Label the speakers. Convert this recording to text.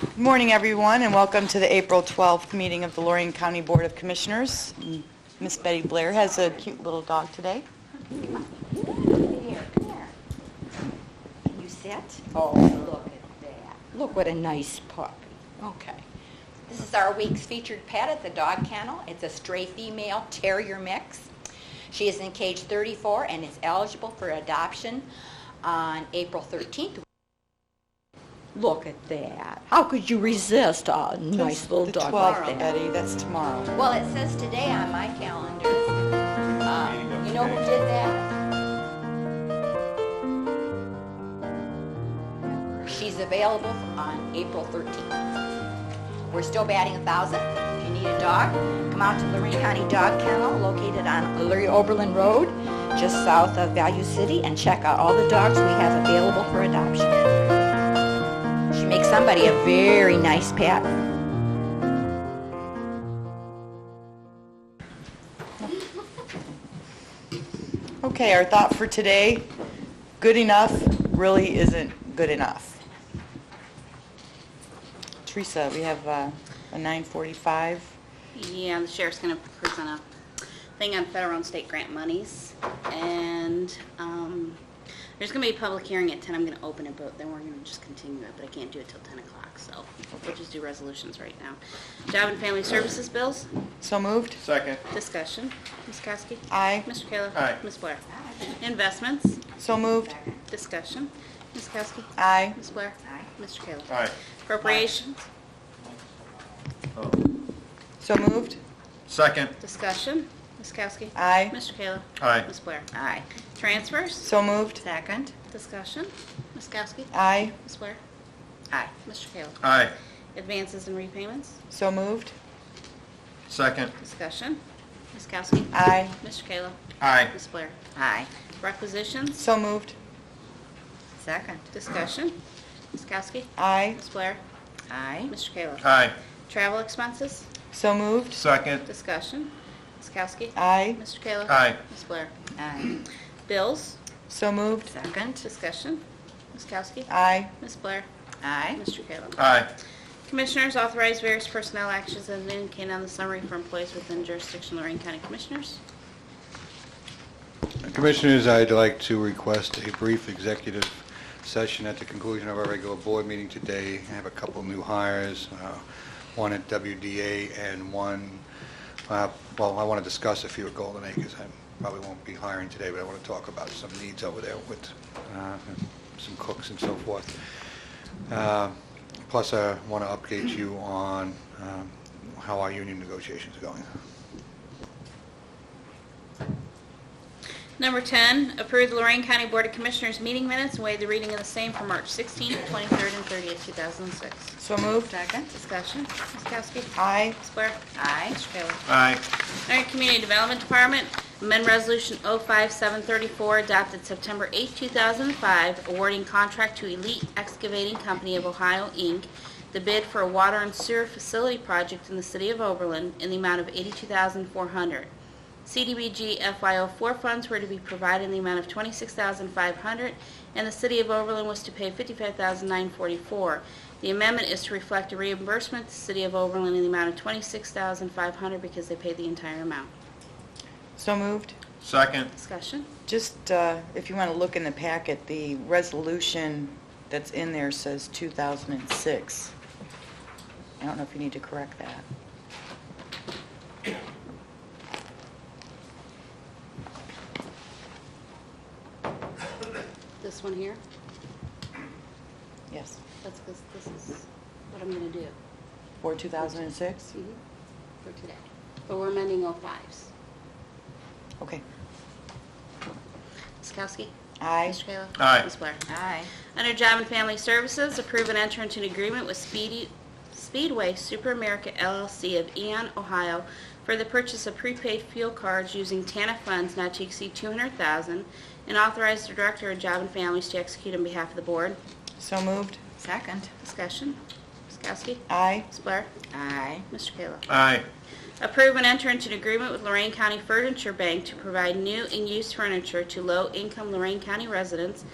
Speaker 1: Good morning, everyone, and welcome to the April 12th meeting of the Lorraine County Board of Commissioners. Miss Betty Blair has a cute little dog today.
Speaker 2: Here, come here. Can you sit? Oh. Look at that. Look what a nice puppy. Okay. This is our week's featured pet at the dog kennel. It's a stray female terrier mix. She is in cage 34 and is eligible for adoption on April 13th. Look at that. How could you resist a nice little dog
Speaker 1: The 12th,
Speaker 2: like that?
Speaker 1: Betty, that's tomorrow.
Speaker 2: Well, it says today on my calendar. Um, You know who did that? She's available on April 13th. We're still batting a 1,000. If you need a dog, come out to Lorraine County Dog Kennel located on Lurie Oberlin Road, just south of Value City, and check out all the dogs we have available for adoption. She makes somebody a very nice pet.
Speaker 1: Okay, our thought for today, good enough really isn't good enough. Teresa, we have uh, a 9:45.
Speaker 3: Yeah, the sheriff's gonna present a thing on federal and state grant monies. And, um, there's gonna be a public hearing at ten, I'm gonna open it, but then we're gonna just continue it, but I can't do it till ten o'clock, so we'll just do resolutions right now. Job and Family Services bills,
Speaker 1: So moved?
Speaker 4: Second,
Speaker 3: discussion. Ms. Kowski?
Speaker 1: Aye.
Speaker 3: Mr. Kayla?
Speaker 4: Aye.
Speaker 3: Ms. Blair? Investments,
Speaker 1: So moved?
Speaker 3: discussion. Ms. Kowski?
Speaker 1: Aye.
Speaker 3: Ms. Blair?
Speaker 2: Aye.
Speaker 3: Mr. Kayla?
Speaker 4: aye.
Speaker 3: Appropriations,
Speaker 4: Oh.
Speaker 1: So moved?
Speaker 4: Second,
Speaker 3: discussion. Ms. Kowski?
Speaker 1: Aye.
Speaker 3: Mr. Kayla?
Speaker 4: aye.
Speaker 3: Ms. Blair?
Speaker 2: Aye.
Speaker 3: Transfers,
Speaker 1: So moved?
Speaker 2: Second?
Speaker 3: discussion. Ms. Kowski?
Speaker 1: Aye.
Speaker 3: Ms. Blair?
Speaker 2: Aye.
Speaker 3: Mr. Kayla?
Speaker 4: Aye.
Speaker 3: Advances and repayments?
Speaker 1: So moved?
Speaker 4: Second,
Speaker 3: Discussion. Ms. Kowski?
Speaker 1: Aye.
Speaker 3: Mr. Kayla?
Speaker 4: aye.
Speaker 3: Ms. Blair?
Speaker 2: Aye.
Speaker 3: Requisitions?
Speaker 1: So moved?
Speaker 2: Second?
Speaker 3: Discussion. Ms. Kowski?
Speaker 1: Aye.
Speaker 3: Ms. Blair?
Speaker 2: Aye.
Speaker 3: Mr. Kayla?
Speaker 4: Aye.
Speaker 3: Travel expenses?
Speaker 1: So moved?
Speaker 4: Second,
Speaker 3: Discussion. Ms. Kowski?
Speaker 1: Aye.
Speaker 3: Mr. Kayla?
Speaker 4: aye.
Speaker 3: Ms. Blair?
Speaker 2: Aye.
Speaker 3: Bills?
Speaker 1: So moved?
Speaker 2: Second?
Speaker 3: Discussion. Ms. Kowski?
Speaker 1: Aye.
Speaker 3: Ms. Blair?
Speaker 2: Aye.
Speaker 3: Mr. Kayla?
Speaker 4: Aye.
Speaker 3: Commissioners authorize various personnel actions as indicated on the summary for employees within jurisdiction of Lorraine County Commissioners.
Speaker 5: Commissioners, I'd like to request a brief executive session at the conclusion of our regular board meeting today. I have a couple new hires, uh, one at WDA and one, uh, well, I want to discuss a few at Golden Acres. I probably won't be hiring today, but I want to talk about some needs over there with uh, some cooks and so forth. Uh, Plus, I want to update you on um, how our union negotiations are going.
Speaker 3: Number 10, approve the Lorraine County Board of Commissioners meeting minutes and waive the reading of the same for March 16th, 23rd, and 30th, 2006.
Speaker 1: So moved?
Speaker 2: Second?
Speaker 3: Discussion. Ms. Kowski?
Speaker 1: Aye.
Speaker 3: Ms. Blair?
Speaker 2: Aye.
Speaker 3: Mr. Kayla?
Speaker 4: Aye.
Speaker 3: Lorraine Community Development Department, amend Resolution 05734 adopted September 8, 2005, awarding contract to Elite Excavating Company of Ohio, Inc., the bid for a water and sewer facility project in the city of Oberlin in the amount of $82,400. CDBG FY04 funds were to be provided in the amount of $26,500, and the City of Oberlin was to pay $55,944. The amendment is to reflect a reimbursement to the City of Oberlin in the amount of $26,500 because they paid the entire amount.
Speaker 1: So moved?
Speaker 4: Second,
Speaker 3: Discussion?
Speaker 1: Just, uh, if you want to look in the packet, the resolution that's in there says 2006. I don't know if you need to correct that.
Speaker 3: This one here,
Speaker 1: Yes.
Speaker 3: that's because this is what I'm going to do
Speaker 1: For 2006?
Speaker 3: mhm, for today. But we're amending 05s.
Speaker 1: Okay.
Speaker 3: Ms. Kowski?
Speaker 1: Aye.
Speaker 3: Mr. Kayla?
Speaker 4: Aye.
Speaker 3: Ms. Blair?
Speaker 2: Aye.
Speaker 3: Under Job and Family Services, approve and enter into an agreement with Speedy- Speedway Super America LLC of Eon, Ohio, for the purchase of prepaid fuel cards using TANA funds not to exceed 200000 and authorize the Director of Job and Families to execute on behalf of the Board.
Speaker 1: So moved?
Speaker 2: Second?
Speaker 3: Discussion. Ms. Kowski?
Speaker 1: Aye.
Speaker 3: Ms. Blair?
Speaker 2: Aye.
Speaker 3: Mr. Kayla?
Speaker 4: aye.
Speaker 3: Approve and enter into an agreement with Lorraine County Furniture Bank to provide new and used furniture to low-income Lorraine County residents